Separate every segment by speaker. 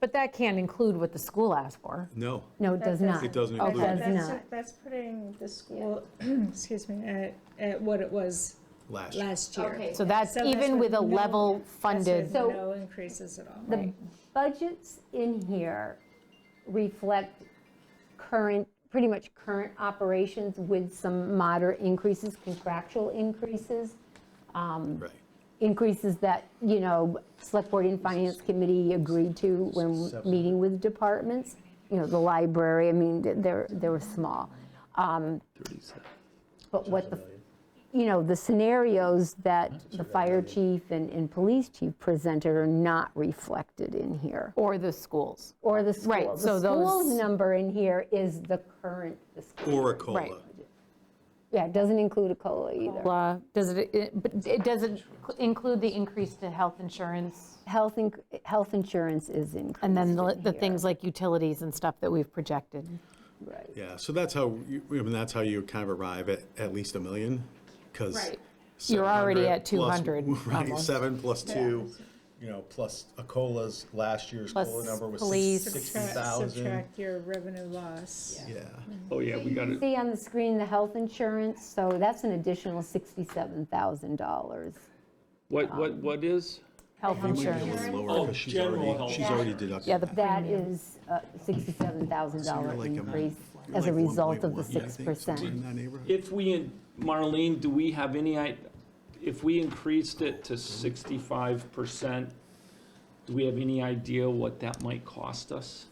Speaker 1: But that can't include what the school asked for.
Speaker 2: No,
Speaker 1: No, it does
Speaker 3: That
Speaker 1: not.
Speaker 3: doesn't-
Speaker 2: it doesn't
Speaker 1: That
Speaker 2: include.
Speaker 1: does
Speaker 3: Oh, That's-
Speaker 1: not.
Speaker 3: That's putting the school, excuse me, at, at what it was
Speaker 2: Last year.
Speaker 3: last year.
Speaker 4: Okay.
Speaker 1: So that's
Speaker 3: So that's
Speaker 1: even with a
Speaker 3: what- no,
Speaker 1: level funded,
Speaker 3: That's
Speaker 5: So-
Speaker 3: with no increases at all.
Speaker 5: The budgets in here reflect current, pretty much current operations with some moderate increases, contractual increases,
Speaker 2: Right.
Speaker 5: increases that, you know, Select Board and Finance Committee agreed to when meeting with departments. You know, the library, I mean, they're, they were small. Um, But what the, you know, the scenarios that the fire chief and, and police chief presented are not reflected in here.
Speaker 1: or the schools.
Speaker 5: Or the school.
Speaker 1: Right, so
Speaker 5: The school's
Speaker 1: those-
Speaker 5: number in here is the current, the school.
Speaker 2: Or a COLA.
Speaker 1: Right.
Speaker 5: Yeah, it doesn't include a COLA either.
Speaker 1: Blah, Does it, it- but it doesn't include the increase to health insurance
Speaker 5: Health, inc- health insurance is increased
Speaker 1: and then the
Speaker 5: in
Speaker 1: the
Speaker 5: here.
Speaker 1: things like utilities and stuff that we've projected.
Speaker 5: Right.
Speaker 2: Yeah, so that's how, you- I mean, that's how you kind of arrive at at least a million, because.
Speaker 4: Right.
Speaker 1: You're already at 200
Speaker 2: Right,
Speaker 1: almost.
Speaker 2: seven plus two, you know, plus a COLA's, last year's
Speaker 1: Plus
Speaker 2: COLA number was
Speaker 1: police.
Speaker 2: sixty
Speaker 3: Subtract-
Speaker 2: thousand.
Speaker 3: Subtract your revenue loss.
Speaker 2: Yeah,
Speaker 6: Oh, yeah, we got it.
Speaker 5: See on the screen, the health insurance, so that's an additional $67,000.
Speaker 6: What, what, what is?
Speaker 1: Health insurance.
Speaker 2: it's lower, because she's already, she's already deducted.
Speaker 1: Yeah, the
Speaker 2: that.
Speaker 5: That is a $67,000
Speaker 2: like, um,
Speaker 5: increase
Speaker 2: You're
Speaker 5: as a
Speaker 2: like
Speaker 5: result of
Speaker 2: 1.1, I
Speaker 5: the
Speaker 2: think, somewhere
Speaker 5: 6%.
Speaker 2: in that neighborhood.
Speaker 6: If we, in- Marlene, do we have any, i- if we increased it to sixty-five percent, do we have any idea what that might cost us?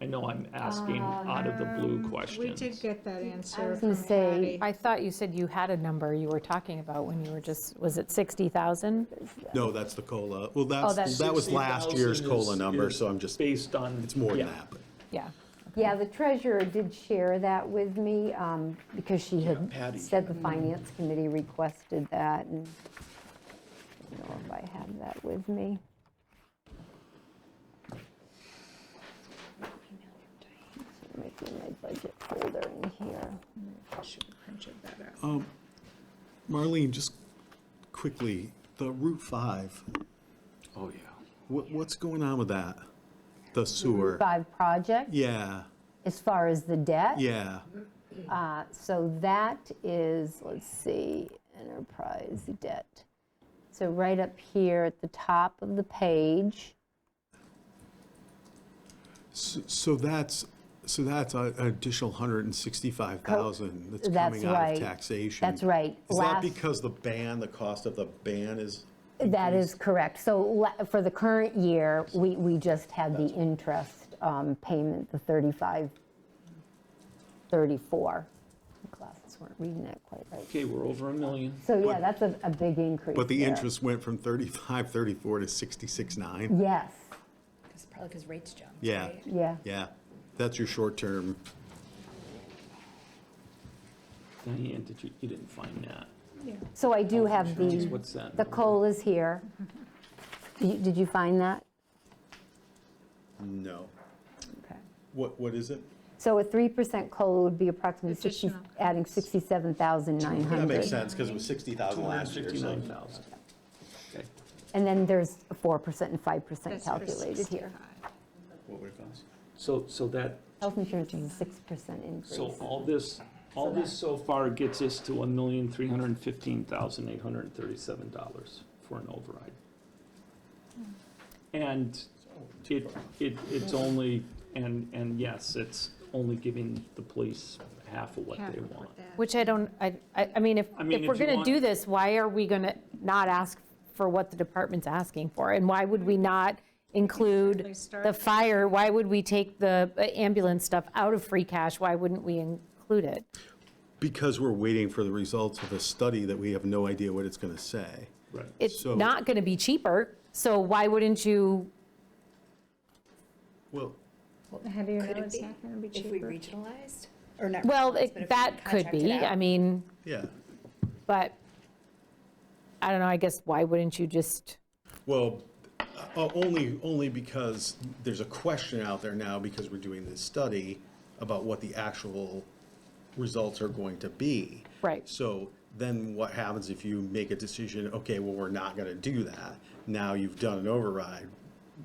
Speaker 6: I know I'm asking out of the blue
Speaker 3: Uh, Um, We
Speaker 6: questions.
Speaker 3: did get that answer.
Speaker 5: was gonna
Speaker 3: from
Speaker 5: say-
Speaker 3: Patty.
Speaker 1: I thought you said you had a number you were talking about when you were just, was it 60,000?
Speaker 2: No, that's the COLA. Well,
Speaker 1: that's-
Speaker 2: that's, that was last year's
Speaker 6: 60,000
Speaker 2: COLA
Speaker 6: is-
Speaker 2: number,
Speaker 6: is
Speaker 2: so I'm just,
Speaker 6: Based on.
Speaker 2: it's more than
Speaker 6: yeah.
Speaker 2: that. but
Speaker 1: Yeah.
Speaker 5: Yeah, the treasurer did share that with me um, because she had
Speaker 6: Patty.
Speaker 5: said the finance committee requested that and I don't know if I have that with me. Making my budget folder in here.
Speaker 3: Should have printed that out.
Speaker 2: Marlene, just quickly, the Route 5,
Speaker 6: Oh, yeah.
Speaker 2: what, what's going on with that? The sewer?
Speaker 5: Five project,
Speaker 2: Yeah,
Speaker 5: as far as the debt.
Speaker 2: yeah.
Speaker 5: Uh, So that is, let's see, enterprise debt. So right up here at the top of the page.
Speaker 2: S- So that's, so that's a- an additional 165,000 that's
Speaker 5: That's
Speaker 2: coming out
Speaker 5: right.
Speaker 2: of taxation.
Speaker 5: That's right.
Speaker 2: Is that
Speaker 5: Last-
Speaker 2: because the ban, the cost of the ban is,
Speaker 5: That is correct. So la- for the current year, we, we just had the interest um, payment, the 35, 34. My Glasses weren't reading that quite right.
Speaker 6: Okay, we're over a million.
Speaker 5: So yeah, that's a, a big increase.
Speaker 2: but the
Speaker 5: there.
Speaker 2: interest went from 35, 34 to 66.9?
Speaker 5: Yes,
Speaker 7: It's probably because rates jumped.
Speaker 2: Yeah,
Speaker 7: right?
Speaker 5: yeah.
Speaker 2: yeah. That's your short-term,
Speaker 6: Diane, did you, you didn't find that?
Speaker 5: So I do have
Speaker 6: Insurance,
Speaker 5: the,
Speaker 6: What's that?
Speaker 5: the COLAs here. You- Did you find that?
Speaker 2: no.
Speaker 5: Okay.
Speaker 2: What, what is it?
Speaker 5: So a 3% COLA would be approximately 60,
Speaker 3: Additional
Speaker 5: adding 67,900.
Speaker 2: That makes sense, because it was 60,000 last year, so.
Speaker 6: 259,000. Okay.
Speaker 5: And then there's a 4% and 5%
Speaker 3: That's for
Speaker 5: calculated here.
Speaker 3: 65.
Speaker 2: What would it cost?
Speaker 6: So, so that,
Speaker 5: Health insurance is a 6% increase.
Speaker 6: So all this, all this so far gets us to one million, three hundred and fifteen thousand, eight hundred and thirty-seven dollars for an override. Hmm. And it, it, it's only, and, and yes, it's only giving the police half of what
Speaker 3: Half
Speaker 6: they
Speaker 3: of
Speaker 6: want.
Speaker 3: that.
Speaker 1: Which I don't, I, I I mean, if,
Speaker 6: I mean,
Speaker 1: if we're
Speaker 6: if you
Speaker 1: going to
Speaker 6: want-
Speaker 1: do this, why are we going to not ask for what the department's asking for? And why would we not include
Speaker 3: start-
Speaker 1: the fire? Why would we take the ambulance stuff out of free cash? Why wouldn't we include it?
Speaker 2: Because we're waiting for the results of a study that we have no idea what it's going to say.
Speaker 6: Right.
Speaker 1: It's
Speaker 2: So-
Speaker 1: not going to be cheaper, so why wouldn't you,
Speaker 2: Well,
Speaker 3: How do you know
Speaker 7: Could it
Speaker 3: it's
Speaker 7: be
Speaker 3: not gonna be
Speaker 7: if we
Speaker 3: cheaper?
Speaker 7: regionalized? Or not?
Speaker 1: well,
Speaker 7: regionalized,
Speaker 1: it-
Speaker 7: but if we
Speaker 1: that could
Speaker 7: contracted
Speaker 1: be,
Speaker 7: out?
Speaker 1: I mean,
Speaker 2: yeah.
Speaker 1: but, I don't know, I guess why wouldn't you just?
Speaker 2: Well, uh, only, only because there's a question out there now because we're doing this study about what the actual results are going to be.
Speaker 1: Right.
Speaker 2: So then what happens if you make a decision, okay, well, we're not going to do that? Now you've done an override.